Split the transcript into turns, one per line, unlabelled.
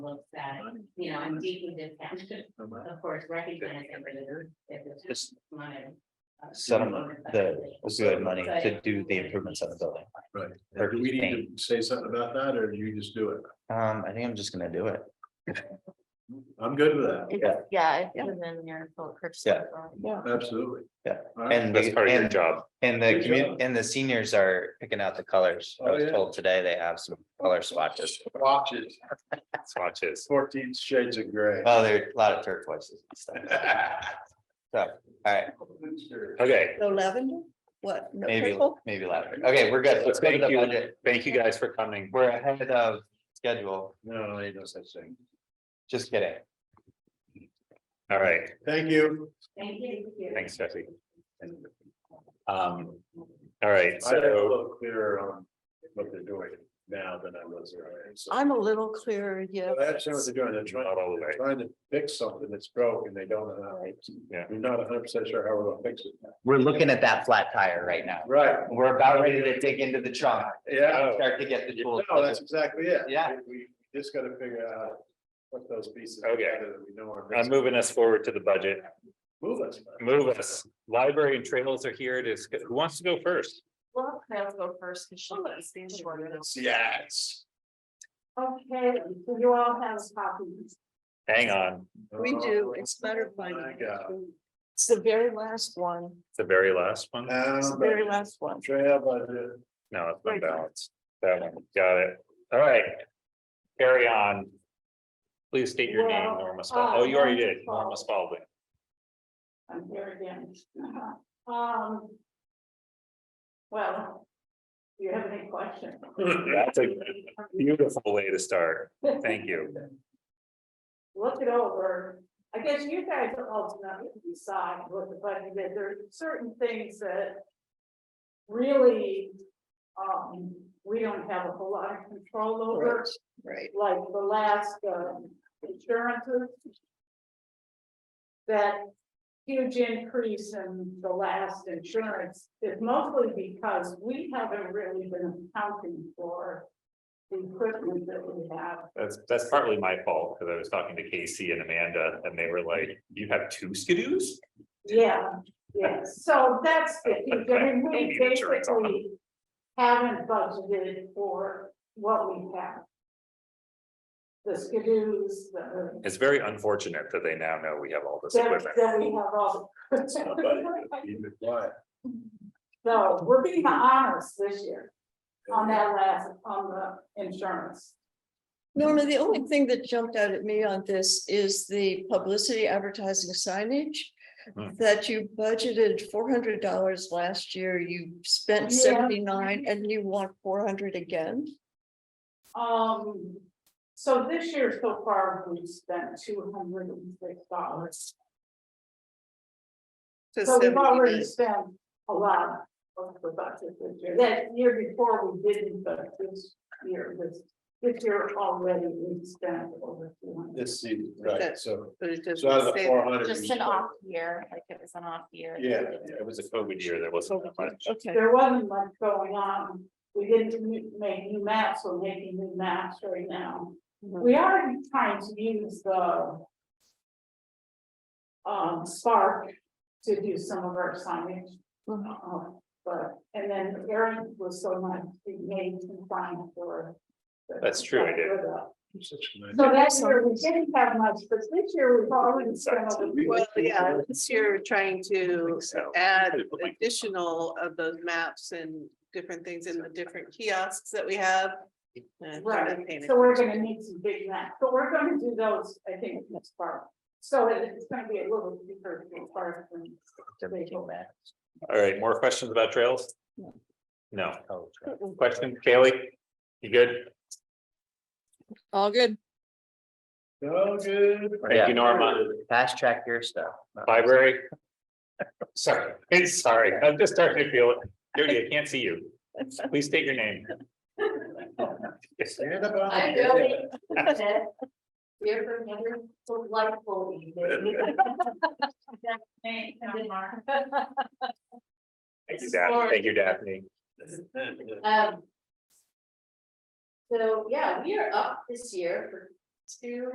looks at, you know, and deeply discounted, of course, recognizing that it's
Just
money. uh,
settlement, the opioid money to do the improvements on the building.
Right.
Or
Do we need
paint.
to say something about that, or do you just do it?
Um, I think I'm just gonna do it.
I'm good with that,
Yeah.
It's- Yeah,
Yeah.
it's within your full purchase.
Yeah.
authority.
absolutely.
Yeah.
All right.
And
That's
the,
part of your
and,
job.
and the
Good
community,
job.
and the seniors are picking out the colors. I
Oh,
was
yeah.
told today they have some color swatches.
Watches,
Swatches.
fourteen shades of gray.
Oh, there are a lot of turquoises and stuff. All right,
Okay,
No lavender? What? No
maybe,
purple?
maybe louder. Okay, we're good. Let's go to
Thank
the
you.
budget.
thank you guys for coming.
We're ahead of schedule.
No, ain't no such thing.
Just kidding.
All right,
Thank you.
Thank you.
thanks, Jesse. Um, all right,
I got a
so,
little clearer on what they're doing now than I was earlier. so-
I'm a little clearer, yeah.
I understand what they're doing. They're trying,
Not all the
they're
way.
trying to fix something that's broke and they don't know how.
Yeah.
We're not hundred percent sure how we're gonna fix it.
We're looking at that flat tire right now.
Right,
We're about ready to dig into the trunk.
yeah.
Start to get the tools.
Oh. No, that's exactly it.
Yeah.
We we just gotta figure out how to put those pieces.
Okay.
together that We know are.
I'm moving us forward to the budget.
Move us.
Move us. Library and trails are here. It is, who wants to go first?
Well, I'll go first because
Oh,
she was the shorter. than-
Yes.
Okay, so you all have copies.
Hang on,
We do, it's better by.
Oh My Oh God.
It's the very last one,
it's the very last one.
it's the very last one.
Trail budget.
No, it's been balanced. That one, got it. All right. Carry on. Please state your name,
Well,
Norma
uh,
Spaulding. Oh, you already
Norma
did, Norma Spaulding.
I'm here again. Um. Well. Do you have any questions?
That's a beautiful way to start. Thank you.
Look it over. I guess you guys ultimately decide what the budget is. There are certain things that. Really. Um, we don't have a whole lot of control over,
Right.
like the last, um, insurances. That huge increase in the last insurance is mostly because we haven't really been accounting for. The equipment that we have.
That's, that's partly my fault, because I was talking to Casey and Amanda, and they were like, you have two skidoos?
Yeah, yeah, so that's, the thing. I mean,
Maybe
we
the insurance on them.
basically haven't budgeted for what we have. The skidoos, the,
It's very unfortunate that they now know we have all this
then
equipment.
then we have all.
My buddy, keep it quiet.
So we're being honest this year on that last, on the insurance.
Norma, the only thing that jumped out at me on this is the publicity advertising signage.
Hmm.
That you budgeted four hundred dollars last year, you spent
Yeah.
seventy-nine and you want four hundred again?
Um, so this year so far, we've spent two hundred and six dollars. So we've already spent a lot of the budget this year. That year before we didn't, but this year, this, this year already we spent over two hundred.
This season, right,
That-
so,
But it
so out of
doesn't
the
say
four
that.
hundred.
Just an off year, like it was an off year.
Yeah,
It was a COVID year, there wasn't that much.
Okay,
There wasn't much going on. We didn't m- make new maps, we're making new maps right now. We are trying to use the um, Spark to do some of our signage.
Mhm.
Uh, But, and then Aaron was so nice, he made some sign for. the-
That's true, I did.
for the-
Such a
So
nice-
that's year we didn't have much, but this year we've already spent. over-
Well, yeah, this year we're trying to
So-
add additional of those maps and different things in the different kiosks that we have. Uh, I'm
Right,
painting.
so we're gonna need some big maps, but we're gonna do those, I think, next part. So it's gonna be a little deeper as far as.
They're making that.
All right, more questions about trails?
No.
No,
Oh,
question, Kaylee? You good?
all good.
So good.
Thank you, Norma.
Fast track your stuff.
Library? Sorry, it's sorry, I'm just starting to feel it. Jody, I can't see you. Please state your name.
Stand up. on
I
it.
really said, we have another delightful evening. Thank you, Mark.
Thank you, Daphne. Thank you, Daphne.
Um. So, yeah, we are up this year for
two